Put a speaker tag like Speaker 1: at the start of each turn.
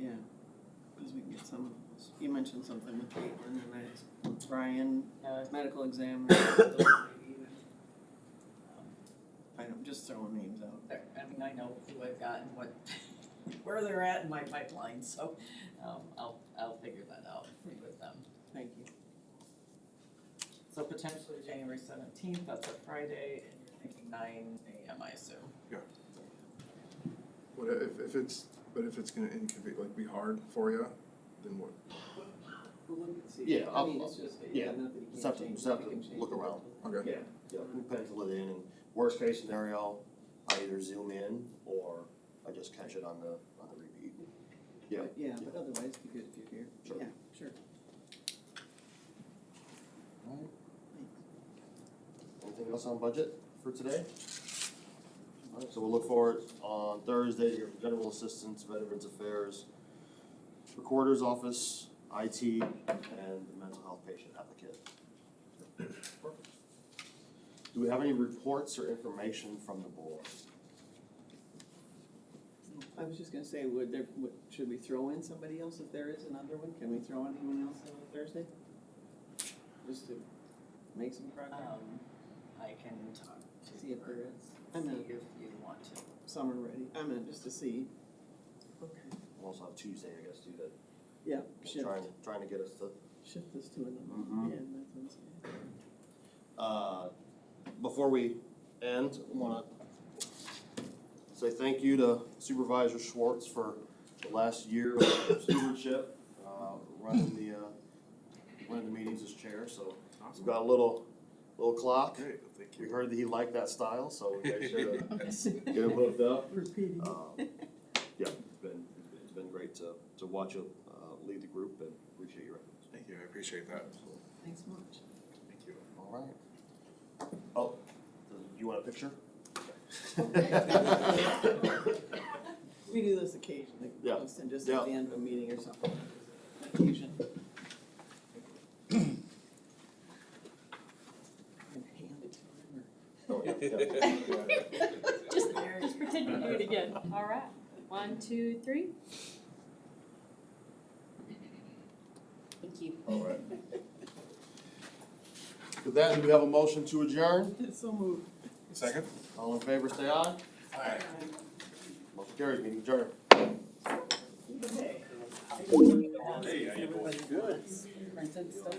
Speaker 1: Yeah, because we can get some of those. You mentioned something with Caitlin and I, asked Brian, uh, medical examiner. I don't, just throwing names out.
Speaker 2: um, there, I mean, I know who I've got and what, where they're at in my pipeline, so, um, I'll, I'll figure that out with them.
Speaker 1: Thank you.
Speaker 2: So potentially January seventeenth, that's a Friday, and you're thinking nine AM, I assume.
Speaker 3: What if, if it's, but if it's gonna inconvenience, like be hard for you, then what?
Speaker 1: Well, look and see.
Speaker 4: Yeah,
Speaker 1: I
Speaker 4: I'll-
Speaker 1: mean, it's just, yeah,
Speaker 4: yeah.
Speaker 1: not that you
Speaker 4: Just
Speaker 1: can't
Speaker 4: have to,
Speaker 1: change,
Speaker 4: just
Speaker 1: it,
Speaker 4: have
Speaker 1: you
Speaker 4: to
Speaker 1: can change.
Speaker 4: look
Speaker 1: it.
Speaker 4: around.
Speaker 3: Okay.
Speaker 4: Yeah, we pencil it in and worst case scenario, I either zoom in or I just catch it on the, on the repeat. Yeah.
Speaker 1: But, Yeah, but otherwise, be good if you're here.
Speaker 4: Sure.
Speaker 1: Yeah, sure.
Speaker 4: Anything else on budget for today? Alright, so we'll look forward on Thursday to hear from General Assistance, Veterans Affairs, Recorder's Office, IT, and the mental health patient applicant. Do we have any reports or information from the board?
Speaker 1: I was just gonna say, would there, would, should we throw in somebody else if there is another one? Can we throw anyone else in on Thursday? Just to make some progress,
Speaker 2: Um, I can talk to.
Speaker 1: see if there is. I
Speaker 2: See
Speaker 1: know,
Speaker 2: if you want to.
Speaker 1: some are ready, I mean, just to see. Okay.
Speaker 4: We'll also have Tuesday, I guess, do that,
Speaker 1: Yeah, shift,
Speaker 4: trying, trying to get us to
Speaker 1: shift this to another,
Speaker 4: Mhm.
Speaker 1: yeah, that's what I'm saying.
Speaker 4: Uh, Before we end, I want to say thank you to Supervisor Schwartz for the last year of stewardship, uh, running the, uh, running the meetings as chair, so we've got a little, little clock.
Speaker 3: Great, thank
Speaker 4: We
Speaker 3: you.
Speaker 4: heard that he liked that style, so we made sure to get him hooked up.
Speaker 1: Repeating.
Speaker 4: Um, Yeah, it's been, it's been great to, to watch you uh, lead the group and appreciate your efforts.
Speaker 3: Thank you, I appreciate that.
Speaker 1: Thanks much.
Speaker 3: Thank you.
Speaker 4: All right. Oh, you want a picture?
Speaker 1: We do this occasionally,
Speaker 4: Yeah.
Speaker 1: just and just at
Speaker 4: Yeah.
Speaker 1: the end of a meeting or something. Occasion. And hand it to him
Speaker 4: Oh, yeah, yeah.
Speaker 5: Just, just pretend you do it again. All right. One, two, three. Thank you.
Speaker 4: All right. With that, do we have a motion to adjourn?
Speaker 1: or- So moved.
Speaker 3: Second?
Speaker 4: All in favor, say aye.
Speaker 3: Aye.
Speaker 4: Motion carries, meeting adjourned.
Speaker 2: Okay.
Speaker 3: Hey, how you doing?
Speaker 2: Everybody wants printed stuff